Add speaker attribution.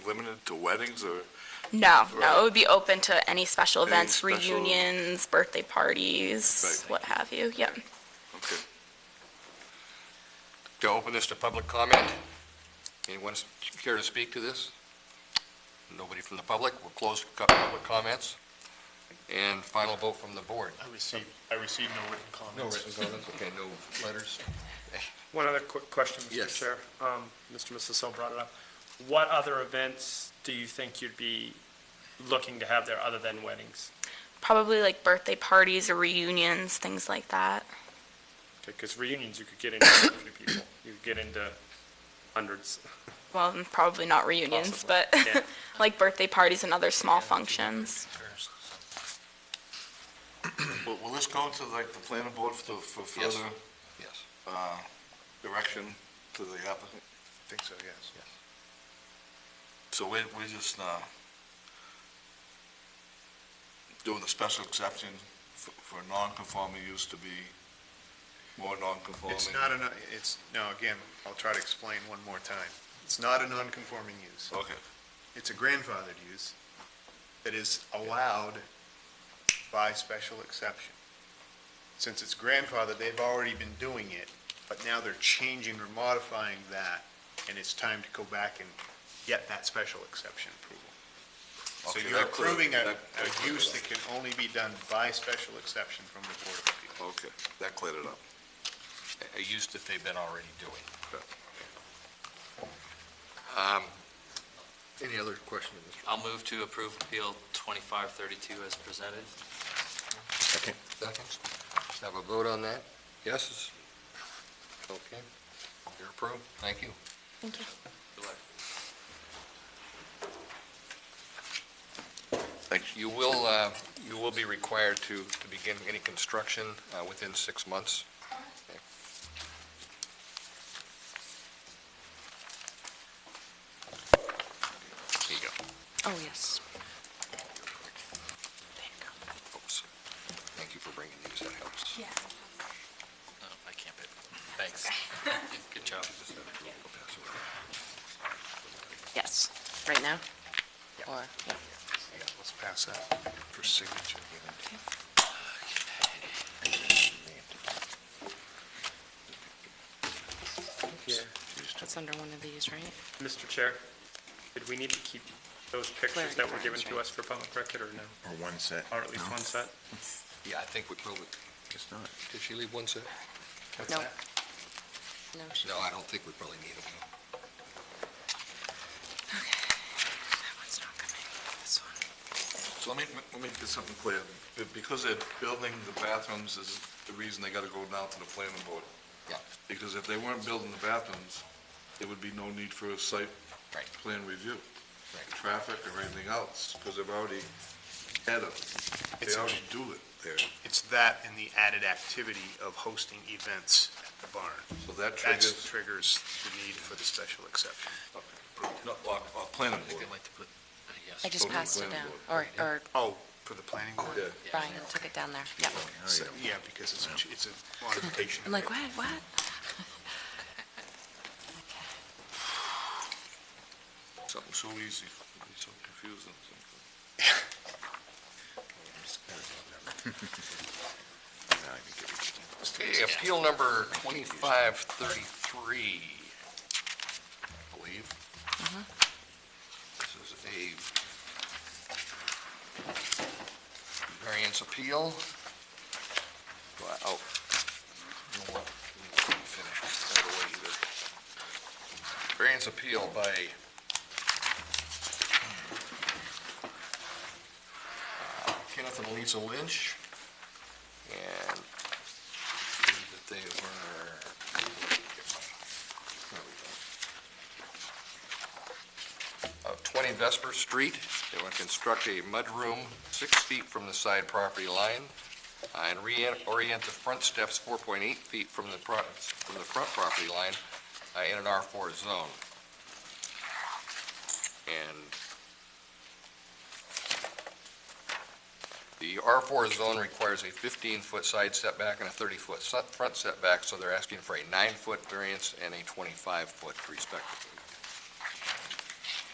Speaker 1: limited to weddings or?
Speaker 2: No,
Speaker 1: Right.
Speaker 2: no, it would be open to any special
Speaker 1: Any
Speaker 2: events,
Speaker 1: special-
Speaker 2: reunions, birthday parties,
Speaker 1: Right.
Speaker 2: what have you, yep.
Speaker 1: Okay.
Speaker 3: To open this to public comment, anyone care to speak to this? Nobody from the public, we'll close cu- public comments, and final vote from the board.
Speaker 4: I received, I received no written comments.
Speaker 3: No written comments, okay, no letters.
Speaker 4: One other quick question,
Speaker 3: Yes.
Speaker 4: Mr. Chair. Um, Mr. Misselso brought it up. What other events do you think you'd be looking to have there other than weddings?
Speaker 2: Probably like birthday parties or reunions, things like that.
Speaker 4: Because reunions, you could get into a few people. You could get into hundreds.
Speaker 2: Well, probably not reunions,
Speaker 4: Possibly.
Speaker 2: but
Speaker 4: Yeah.
Speaker 2: like birthday parties and other small functions.
Speaker 1: Will, will this go to like the planning board for, for
Speaker 3: Yes.
Speaker 1: further,
Speaker 3: Yes,
Speaker 1: uh, direction to the applicant? I think so, yes.
Speaker 3: yes.
Speaker 1: So we, we just, uh, doing the special exception for, for non-conforming use to be more non-conforming?
Speaker 5: It's not a, no- it's, no, again, I'll try to explain one more time. It's not a non-conforming use.
Speaker 1: Okay,
Speaker 5: It's a grandfathered use that is allowed by special exception. Since it's grandfathered, they've already been doing it, but now they're changing or modifying that, and it's time to go back and get that special exception approval. So
Speaker 1: Okay,
Speaker 5: you're
Speaker 1: that clear-
Speaker 5: approving a,
Speaker 1: that- that
Speaker 5: a
Speaker 1: cleared
Speaker 5: use
Speaker 1: it
Speaker 5: that can only be done by special exception from the Board of Appeals.
Speaker 1: okay, that cleared it up.
Speaker 3: A- A use that they've been already doing. Um, Any other question? Mr.
Speaker 6: I'll move to approve Appeal 2532 as presented.
Speaker 3: Seconds? Let's have a vote on that. Yes? Okay, you're approved, thank you.
Speaker 2: Thank you.
Speaker 6: Good luck.
Speaker 3: Thanks. You will, uh, you will be required to, to begin any construction uh, within six months. Okay. Here you go.
Speaker 7: Oh, yes.
Speaker 3: Oops. Thank you for bringing these, that helps.
Speaker 7: Yeah.
Speaker 6: No, I can't pay. Thanks. Good job.
Speaker 7: Yes, right now? Or, yeah.
Speaker 5: Yeah, let's pass that for signature.
Speaker 7: That's under one of these, right?
Speaker 4: Mr. Chair, did we need to keep those pictures that were given to us for public record or no?
Speaker 8: Or one set.
Speaker 4: Or at least one set?
Speaker 3: Yeah, I think we probably,
Speaker 8: Guess not.
Speaker 3: did she leave one set?
Speaker 7: No. No. she-
Speaker 3: No, I don't think we probably need them.
Speaker 7: That one's not coming. This one.
Speaker 1: So let me, let me get something clear. Be- Because they're building the bathrooms is the reason they gotta go down to the planning board.
Speaker 3: Yeah.
Speaker 1: Because if they weren't building the bathrooms, there would be no need for a site
Speaker 3: Right.
Speaker 1: plan review.
Speaker 3: Right.
Speaker 1: Traffic or anything else, because they've already had a, they
Speaker 5: It's-
Speaker 1: already do it there.
Speaker 5: It's that and the added activity of hosting events at the barn.
Speaker 1: So that
Speaker 5: That
Speaker 1: triggers,
Speaker 5: triggers the need for the special exception.
Speaker 1: no, our, our planning board.
Speaker 6: like to put,
Speaker 7: I just
Speaker 1: Okay,
Speaker 7: passed it
Speaker 1: planning
Speaker 7: down, or,
Speaker 1: board.
Speaker 7: or
Speaker 5: Oh, for the planning board?
Speaker 1: Yeah.
Speaker 7: Brian took it down there, yeah.
Speaker 5: So, Yeah, because it's, a ch- it's a modification.
Speaker 7: I'm like, what, what?
Speaker 1: Something so easy, it's so confusing.
Speaker 3: Okay, appeal number 2533, I believe. This is a variance appeal. Well, Oh, you know what? We didn't finish that away either. Variance appeal by uh, Kenneth and Lisa Lynch, and believe that they were, there we go. Of 20 Vesper Street, they want to construct a mudroom six feet from the side property line uh, and reorient the front steps 4.8 feet from the, pro- from the front property line uh, in an R4 zone. And The R4 zone requires a 15-foot side setback and a 30-foot front setback, so they're asking for a nine-foot variance and a 25-foot respectively.